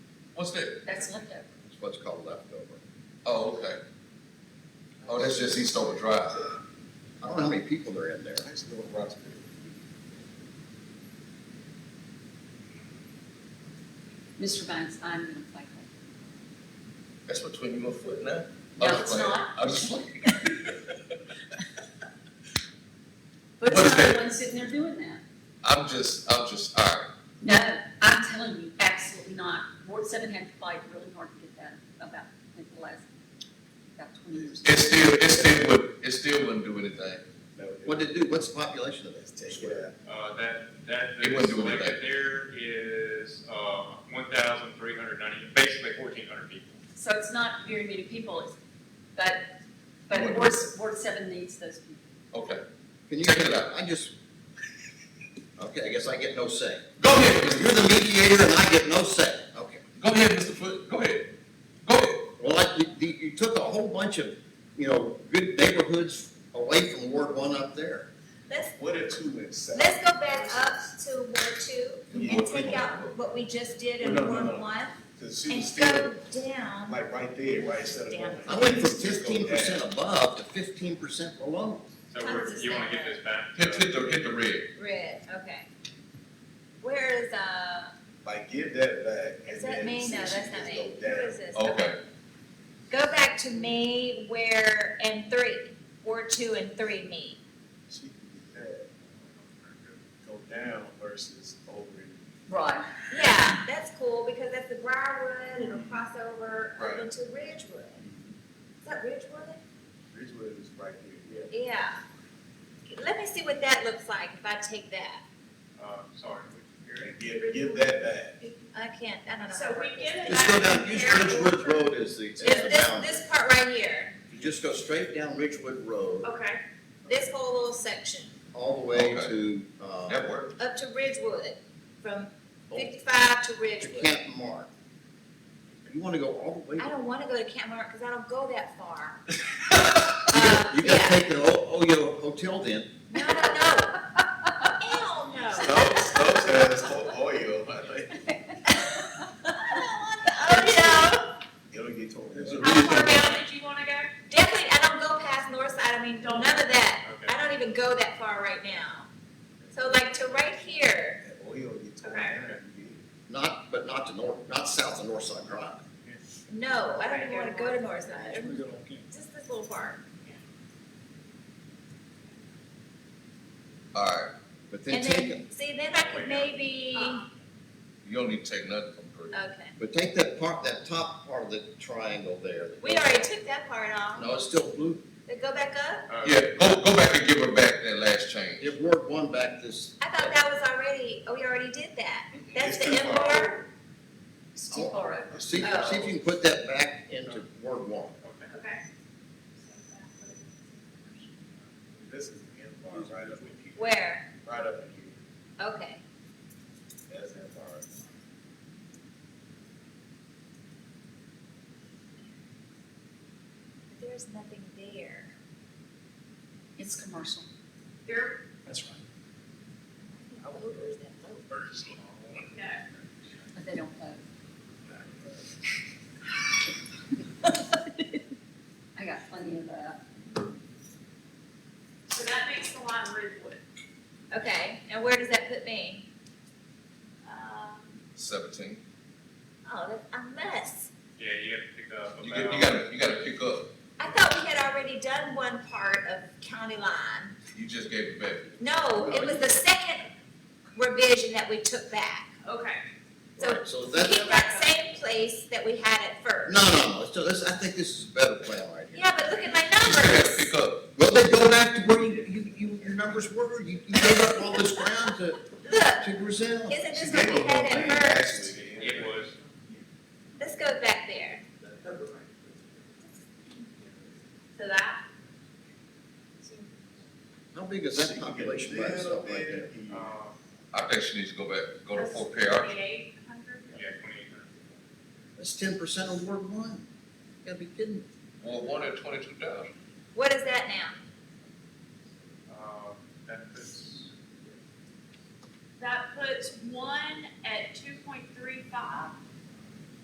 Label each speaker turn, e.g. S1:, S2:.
S1: What's new?
S2: That's left over.
S3: It's what's called leftover.
S1: Oh, okay. Oh, that's just East Over Drive.
S3: I don't know how many people are in there.
S1: That's the one Ross did.
S2: Mr. Banks, I'm gonna play.
S1: That's between your foot now?
S2: No,
S1: I'm just
S2: it's
S1: playing.
S2: not.
S1: I'm just playing. What
S2: But
S1: is
S2: it's not
S1: that?
S2: the one sitting there doing that.
S1: I'm just, I'm just, all right.
S2: No, I'm telling you, absolutely not. Ward seven had to fight really hard to get that about, in the last, about twenty years.
S1: It still, it still would, it still wouldn't do anything.
S3: What did it do? What's the population of that?
S4: Uh, that, that,
S1: It
S4: the
S1: wouldn't do
S4: selected
S1: anything.
S4: there is, uh, one thousand three hundred ninety, basically fourteen hundred people.
S2: So it's not very many people, it's- but, but
S1: What-
S2: Ward, Ward seven needs those people.
S1: Okay.
S3: Can you
S1: Check it out.
S3: I just, okay, I guess I get no say.
S1: Go ahead, Mr.
S3: You're the mediator and I get no say. Okay.
S1: Go ahead, Mr. Foot. Go ahead. Go ahead.
S3: Well, like, you- you, you took a whole bunch of, you know, good neighborhoods away from Ward One up there.
S5: Let's,
S6: What a two and seven.
S5: let's go back up to Ward Two and take out what we just did in
S6: No, no,
S5: Ward
S6: no.
S5: One
S6: Cause she
S5: and
S6: was still,
S5: go down.
S6: like, right there, right, instead of going.
S3: I went from fifteen percent above to fifteen percent below.
S4: So
S5: How does
S4: we're,
S5: this
S4: you wanna
S5: sound?
S4: get this back?
S1: Hit, hit the, hit the red.
S5: Red, okay. Where is, uh,
S6: Like, give that back. and
S5: is that
S6: then
S5: May?
S6: see
S5: No,
S6: if she
S5: that's
S6: can
S5: not May.
S6: go
S5: Who
S6: down.
S5: is this?
S1: Okay.
S5: Go back to May where, and three, Ward Two and three meet.
S6: She can do that. Go down versus over. in-
S2: Right.
S5: Yeah, that's cool because that's the Briarwood and a crossover
S6: Right.
S5: over to Ridgewood. Is that Ridgewood?
S6: Ridgewood is right there, yeah.
S5: Yeah. Let me see what that looks like if I take that.
S4: Uh, sorry, we can hear
S6: And give, give that back.
S5: I can't, I don't know.
S7: So we get it
S3: Just go down, use Ridgewood Road as the, as
S5: This,
S3: the
S5: this,
S3: boundary.
S5: this part right here,
S3: You just go straight down Ridgewood Road,
S7: Okay,
S5: this whole little section,
S3: all the way
S1: Okay.
S3: to, uh,
S1: That worked.
S5: up to Ridgewood, from
S3: to
S5: fifty-five to Ridgewood.
S3: Camp Mark. You wanna go all the way,
S5: I don't wanna go to Camp Mark, cause I don't go that far.
S3: you
S5: Uh,
S3: gotta, you
S5: yeah.
S3: gotta take the O- Oyo Hotel then.
S5: No, no, no. Hell no.
S6: Stokes, Stokes has whole oil, I think.
S5: I don't want the, oh,
S6: It'll get torn
S3: There's
S6: up.
S3: a-
S7: how far down did you wanna go?
S5: no. Definitely, I don't go past north side, I mean, none of that.
S4: Okay.
S5: I don't even go that far right now. So like to right here,
S6: That oil get torn
S7: Okay.
S6: down. you get-
S3: Not, but not to north, not south of Northside Drive.
S5: no, I don't
S7: Okay,
S5: even wanna
S7: go
S5: go to
S7: north.
S5: north side, just this little part.
S1: All right.
S3: But then
S5: And
S3: take, it-
S5: then, see, then I could maybe,
S1: You don't need to take nothing from three.
S5: okay.
S3: but take that part, that top part of the triangle there.
S5: We already took that part off.
S3: No, it's still blue,
S5: Then go back up?
S4: Uh,
S1: Yeah, go, go back and give her back that last change.
S3: Give Ward One back this.
S5: I thought that was already, oh, we already did that. That's
S6: It's
S5: the
S6: too far.
S5: M bar?
S2: It's
S1: Oh.
S2: too far over.
S3: See, see if you can put that back into Ward One.
S4: Okay.
S7: Okay.
S6: This is the end bar right up in here,
S5: Where?
S6: right up in here.
S5: Okay.
S6: That's end bar.
S5: There's nothing there.
S2: It's commercial.
S7: There,
S5: Where's that vote?
S7: no,
S2: But they don't vote. I got plenty of uh, that.
S7: so that makes the line Ridgewood.
S5: Okay, and where does that put me?
S7: Um,
S1: Seventeen.
S5: Oh, that's a mess.
S4: Yeah, you have to pick up about.
S1: You get, you gotta, you gotta pick up.
S5: I thought we had already done one part of county line.
S1: You just gave it back.
S5: No, it was the second revision that we took back.
S7: okay,
S5: So
S3: Right, So that's,
S5: Keep that same place that we had it first.
S3: no, no, no, so this, I think this is a better plan right here.
S5: Yeah, but look at my
S1: You just gotta
S5: numbers.
S1: pick up.
S3: Well, they go back to where you, you, you, your numbers were, you, you gave up all this ground to,
S5: Look,
S3: to Brazil.
S5: isn't
S6: She
S5: this
S6: gave
S5: what
S6: a
S5: we
S6: little
S5: had
S6: thing,
S5: at first?
S6: actually, the end
S4: It was,
S5: Let's go back there.
S7: so that,
S3: How big is that population by itself right there?
S4: uh,
S1: I think she needs to go back, go to
S7: that's
S1: Fort Perry.
S7: twenty-eight hundred?
S4: yeah, twenty-eight hundred.
S3: That's ten percent of Ward One. You gotta be kidding me.
S1: Well, one at twenty-two thousand.
S5: What is that now?
S4: Uh, that puts,
S7: That puts one at two point three five,